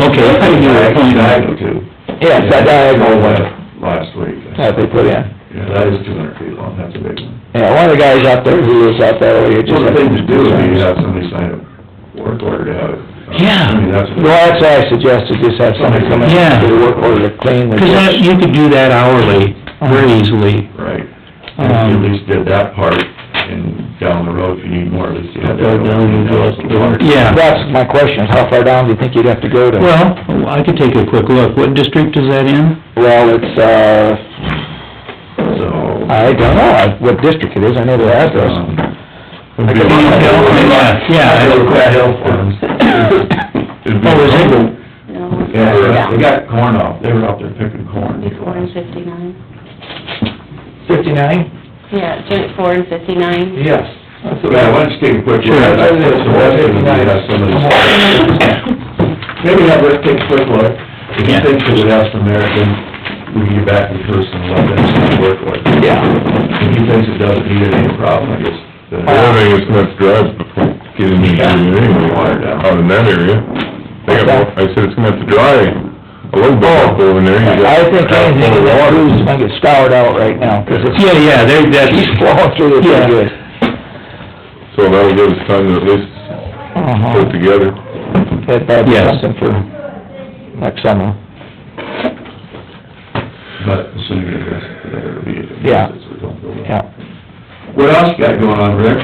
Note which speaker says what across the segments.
Speaker 1: okay, you can do it.
Speaker 2: Diagonal too.
Speaker 1: Yes, that diagonal one.
Speaker 2: Last week.
Speaker 1: that they put in.
Speaker 2: Yeah, that is two hundred feet long, that's a big one.
Speaker 1: Yeah, one of the guys out there who was out there earlier just.
Speaker 2: Well, the thing to do would be have somebody sign a work order to have it.
Speaker 3: Yeah.
Speaker 2: I mean, that's.
Speaker 1: Well, that's why I suggested just have somebody come in
Speaker 3: Yeah.
Speaker 1: and do the work order to clean the
Speaker 3: Cause that,
Speaker 1: ditch.
Speaker 3: you could do that hourly, very easily.
Speaker 2: Right.
Speaker 1: Um,
Speaker 2: And you at least did that part, and down the road, if you need more, at least you had that.
Speaker 3: Go down and do it.
Speaker 2: The water.
Speaker 3: Yeah.
Speaker 1: That's my question, is how far down do you think you'd have to go to?
Speaker 3: Well, I could take a quick look. What district is that in?
Speaker 1: Well, it's, uh,
Speaker 2: So.
Speaker 1: I don't know what district it is, I know the address.
Speaker 2: um,
Speaker 1: I
Speaker 3: could- Yeah, yeah.
Speaker 2: Go to Pratt Hill Farms. It'd be-
Speaker 3: Oh, is it?
Speaker 4: No,
Speaker 2: Yeah, they got- they got corn off, they were out there picking corn.
Speaker 4: it's four and fifty-nine.
Speaker 1: Fifty-nine?
Speaker 4: Yeah, joint four and fifty-nine.
Speaker 1: Yes.
Speaker 2: That's what I wanted to take a quick look.
Speaker 1: Sure.
Speaker 2: I think it's the worst thing we have some of this- Maybe have Rick take a quick look. If he
Speaker 3: Yeah.
Speaker 2: thinks it would have some merit, then we can get back in person and let them see the work order.
Speaker 1: Yeah.
Speaker 2: If he thinks it doesn't need any problem, I guess. then-
Speaker 5: The other thing is not drive before getting into it anyway, out in that area. They got, I said it's gonna have to dry a little bit up over there. You got-
Speaker 1: Oh. I think anything that cruise might get scoured out right now, 'cause it's,
Speaker 3: Yeah, yeah, there, that's,
Speaker 1: he's flowing through it
Speaker 3: Yeah.
Speaker 1: pretty good.
Speaker 5: So that'll give us time to at least
Speaker 1: Uh-huh.
Speaker 5: put together.
Speaker 1: That, that'd be
Speaker 3: Yes.
Speaker 1: something for next summer.
Speaker 2: But the sooner it is, the better it'll be.
Speaker 1: Yeah.
Speaker 2: So we don't go back.
Speaker 1: Yeah.
Speaker 2: What else you got going on, Rick?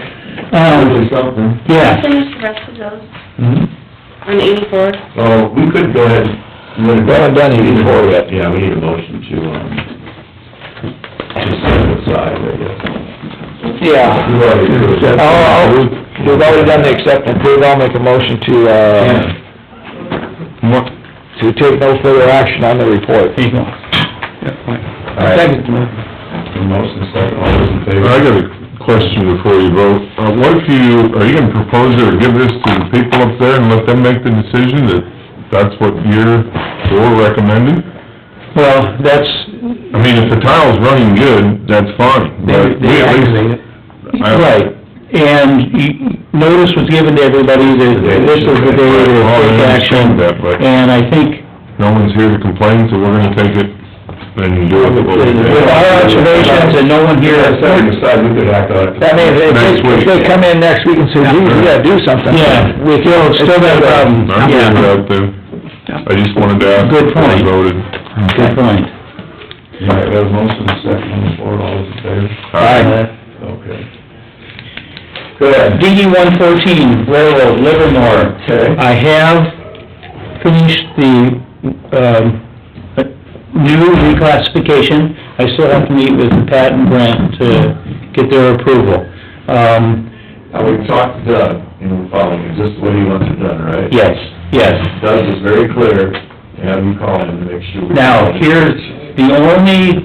Speaker 2: Probably
Speaker 3: um,
Speaker 2: something.
Speaker 3: yeah.
Speaker 4: Finish the rest of those on eighty-four.
Speaker 2: Oh, we could go ahead. and-
Speaker 1: We haven't done it before yet.
Speaker 2: Yeah, we need a motion to, um, just set it aside, I guess.
Speaker 1: Yeah.
Speaker 2: You already did it.
Speaker 1: Oh, oh, we've already done the accept and approve, I'll make a motion to, uh,
Speaker 2: Yeah.
Speaker 5: What?
Speaker 1: to take no further action on the report.
Speaker 3: There you go.
Speaker 2: The motion is second, all those in favor?
Speaker 5: I got a question before you vote. Uh, what if you, are you gonna propose or give this to the people up there and let them make the decision that that's what you're, you're recommending?
Speaker 3: Well, that's,
Speaker 5: I mean, if the tile's running good, that's fine,
Speaker 3: they,
Speaker 5: but we
Speaker 3: they
Speaker 5: at least...
Speaker 3: activate it.
Speaker 5: I-
Speaker 3: Right, and you- notice was given to everybody that this is the day
Speaker 5: Oh, I
Speaker 3: to take
Speaker 5: understand
Speaker 3: action.
Speaker 5: that, but-
Speaker 3: And I think,
Speaker 5: No one's here to complain, so we're gonna take it and do it the way we
Speaker 3: with our observations and no one here,
Speaker 2: Yeah, setting aside, we could act on it.
Speaker 1: I mean, if
Speaker 5: Next
Speaker 1: they, if
Speaker 5: week.
Speaker 1: they come in next week and say, gee, we gotta do something.
Speaker 3: Yeah.
Speaker 1: We feel it's still got a problem.
Speaker 5: I'm good with that then. I just wanted to ask.
Speaker 3: Good
Speaker 5: before I
Speaker 3: point.
Speaker 5: Voted.
Speaker 3: good point.
Speaker 2: All right, we have a motion is second on the floor, all those in favor? Okay. Good.
Speaker 3: DD E one fourteen, railroad, Livermore.
Speaker 2: Okay.
Speaker 3: I have finished the, um, new reclassification. I still have to meet with Pat and Brent to get their approval. Um,
Speaker 2: Now, we talked to Doug, and we're following, is this the way he wants it done, right?
Speaker 3: yes, yes.
Speaker 2: Doug was very clear, have you call him to make sure. we-
Speaker 3: Now, here's, the only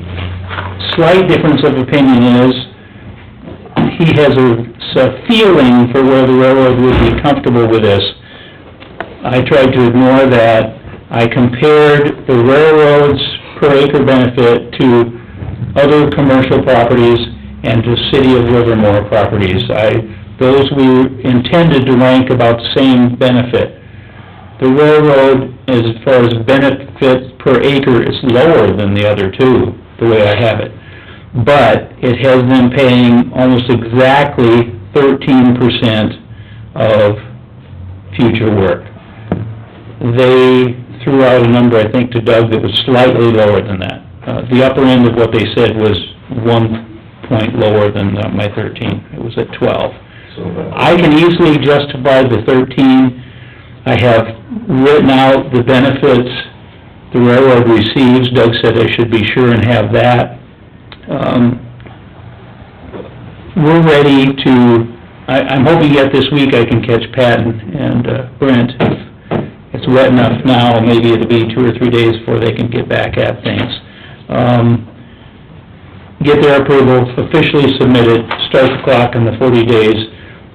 Speaker 3: slight difference of opinion is, he has a, s- a feeling for where the railroad would be comfortable with this. I tried to ignore that. I compared the railroad's per acre benefit to other commercial properties and to city of Livermore properties. I, those we intended to rank about the same benefit the railroad, as far as benefit per acre, is lower than the other two, the way I have it. But it has them paying almost exactly thirteen percent of future work. They threw out a number, I think, to Doug that was slightly lower than that. Uh, the upper end of what they said was one point lower than uh, my thirteen, it was at twelve.
Speaker 2: So, uh,
Speaker 3: I can easily justify the thirteen. I have written out the benefits the railroad receives. Doug said I should be sure and have that. Um, we're ready to, I, I'm hoping yet this week I can catch Pat and- and uh, Brent. It's wet enough now, maybe it'll be two or three days before they can get back at things. Um, get their approval, officially submitted, start the clock on the forty days.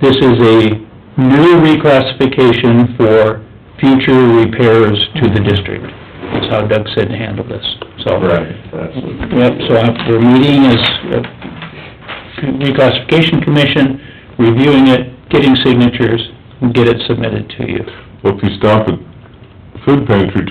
Speaker 3: This is a new reclassification for future repairs to the district. That's how Doug said to handle this, so.
Speaker 2: Right, that's what.
Speaker 3: Yep, so after meeting is uh, reclassification commission, reviewing it, getting signatures, and get it submitted to you.
Speaker 5: Well, if you stop at
Speaker 2: food pantry